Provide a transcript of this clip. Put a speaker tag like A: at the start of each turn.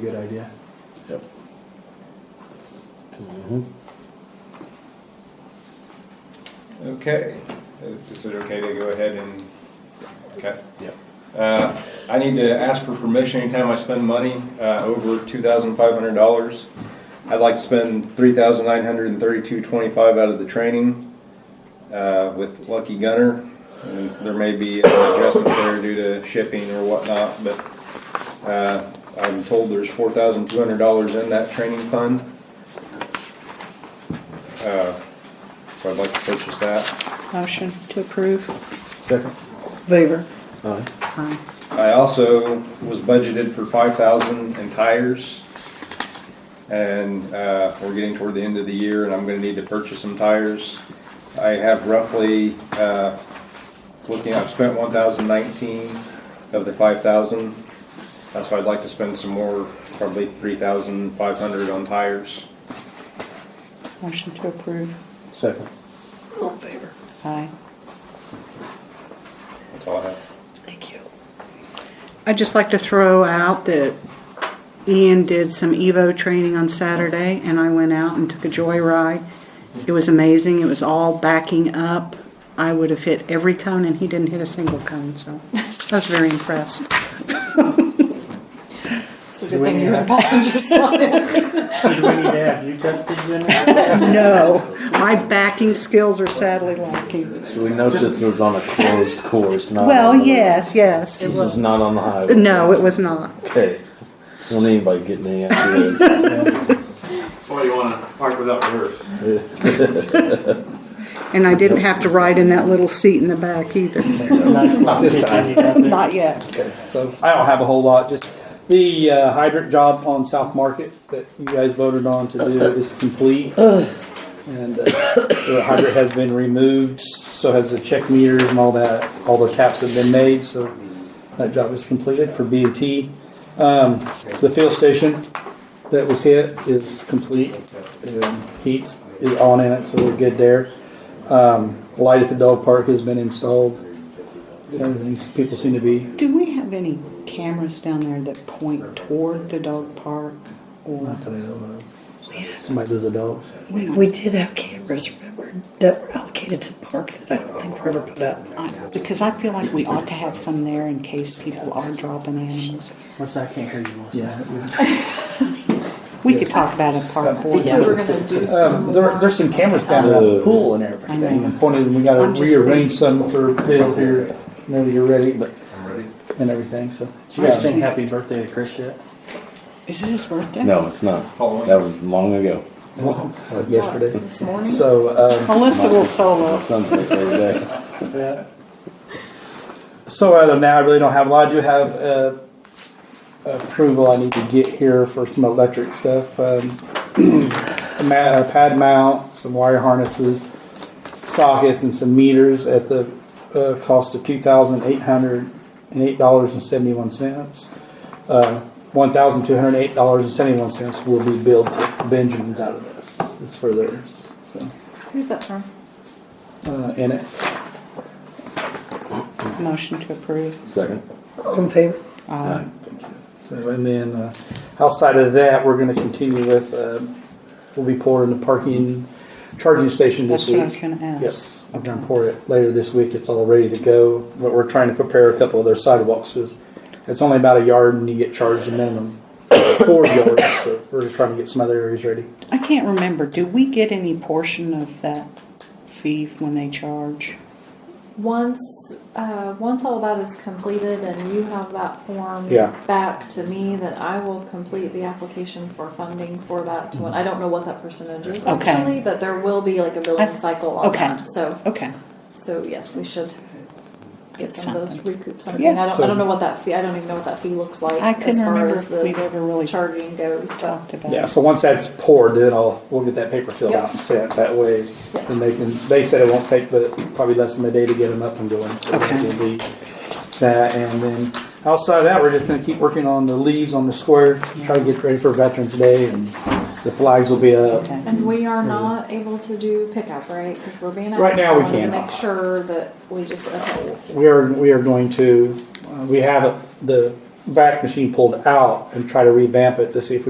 A: Good idea.
B: Yep.
C: Okay, Uh, is it okay to go ahead and, okay.
A: Yep.
C: Uh, I need to ask for permission anytime I spend money uh, over $2,500. I'd like to spend $3,932.25 out of the training uh, with Lucky Gunner. And There may be an adjustment there due to shipping or whatnot, but uh, I'm told there's $4,200 in that training fund. Uh, So I'd like to purchase that.
D: Motion to approve.
A: Second.
D: Favor.
A: Aye.
D: Aye.
C: I also was budgeted for five thousand in tires. And, uh, we're getting toward the end of the year and I'm gonna need to purchase some tires. I have roughly, uh, looking, I've spent one thousand nineteen of the five thousand. That's why I'd like to spend some more, probably three thousand five hundred on tires.
D: Motion to approve.
A: Second.
D: All in favor. Aye.
C: That's all I have.
D: Thank you. I'd just like to throw out that Ian did some Evo training on Saturday, and I went out and took a joyride. It was amazing. It was all backing up. I would have hit every cone, and he didn't hit a single cone, so I was very impressed.
E: It's a good thing you're in the passenger side.
A: So do we need to have you tested then?
D: No, my backing skills are sadly lacking.
B: So we note this is on a closed course,
A: Uh,
B: not.
D: Well,
B: on the-
D: yes, yes.
B: This is not on the highway.
D: No, it was not.
B: Okay. So don't anybody getting any ideas.
F: Well, you wanna park without reverse.
D: And I didn't have to ride in that little seat in the back either.
A: Not
G: this time.
D: Not yet.
G: So I don't have a whole lot, just the uh, hydrant job on South Market that you guys voted on to do is complete. And uh, the hydrant has been removed, so has the check meters and all that, all the taps have been made, so that job is completed for B and T. Um, the field station that was hit is complete, Um, heats is on in it, so we're good there. Um, light at the dog park has been installed, everything's, people seem to be
D: Do we have any cameras down there that point toward the dog park? Or
G: Not that I know of. Somebody does a dog.
D: we
E: We did have cameras, remember, that were allocated to the park that I don't think were ever put up.
D: I- Because I feel like we ought to have some there in case people are dropping animals.
A: What's that? I can't hear you, Melissa.
D: We could talk about a park board.
E: were gonna do
G: Um, there, there's some cameras down at the pool and
D: I know.
G: everything. And pointed, and we gotta
D: I'm just
G: rearrange some for Bill here whenever you're ready, but. And everything, so.
A: Did you guys sing happy birthday to Chris yet?
D: Is it his birthday?
B: No, it's not. That was long ago.
G: Uh, Yesterday.
E: This morning?
G: So, um,
D: Melissa will
B: My
D: solo.
B: son's birthday today.
G: yeah. So other than that, I really don't have a lot. I do have, uh, approval I need to get here for some electric stuff. Um, a ma- a pad mount, some wire harnesses, sockets and some meters at the uh, cost of two thousand eight hundred and eight dollars and seventy one cents. Uh, one thousand two hundred eight dollars and seventy one cents will be billed to Benjamin's out of this. It's for theirs. So
E: Who's that from?
G: uh, in it.
D: Motion to approve.
B: Second.
E: From favor.
D: Uh,
G: So, and then uh, outside of that, we're going to continue with, uh, we'll be pouring the parking charging station this
D: That's what I was
G: week.
D: gonna ask.
G: Yes, we're going to pour it later this week. It's all ready to go, but we're trying to prepare a couple of their sidewalks. It's- It's only about a yard and you get charged a minimum four yards, so we're trying to get some other areas ready.
D: I can't remember. Do we get any portion of that fee when they charge?
H: Once, uh, once all that is completed and you have that form
G: Yeah.
H: back to me, then I will complete the application for funding for that. To, I don't know what that percentage is
D: Okay.
H: actually, but there will be like a billing
D: I've-
H: cycle on
D: okay.
H: that. So,
D: Okay.
H: so yes, we should get some of those
D: Something.
H: recoup something.
D: Yeah.
H: I don't,
G: So-
H: I don't know what that fee. I don't even know what that fee looks like
D: I couldn't
H: as far
D: remember
H: as
D: if
H: the
D: we've ever really
H: charging goes, but
D: Talked about.
G: Yeah, so once that's poured, then I'll, we'll get that paper filled
H: Yep.
G: out and sent. That way, it's-
H: Yes.
G: and they can, they said it won't take, but probably less than a day to get them up and going. So
D: Okay.
G: it'll be That, and then outside of that, we're just gonna keep working on the leaves on the square, try to get ready for Veterans Day and the flags will be up.
D: Okay.
H: And we are not able to do pickup, right? Because we're being asked.
G: Right now, we
H: I wanna
G: cannot.
H: Make sure that we just, okay.
G: We are, we are going to, uh, we have it- the vac machine pulled out and try to revamp it to see if we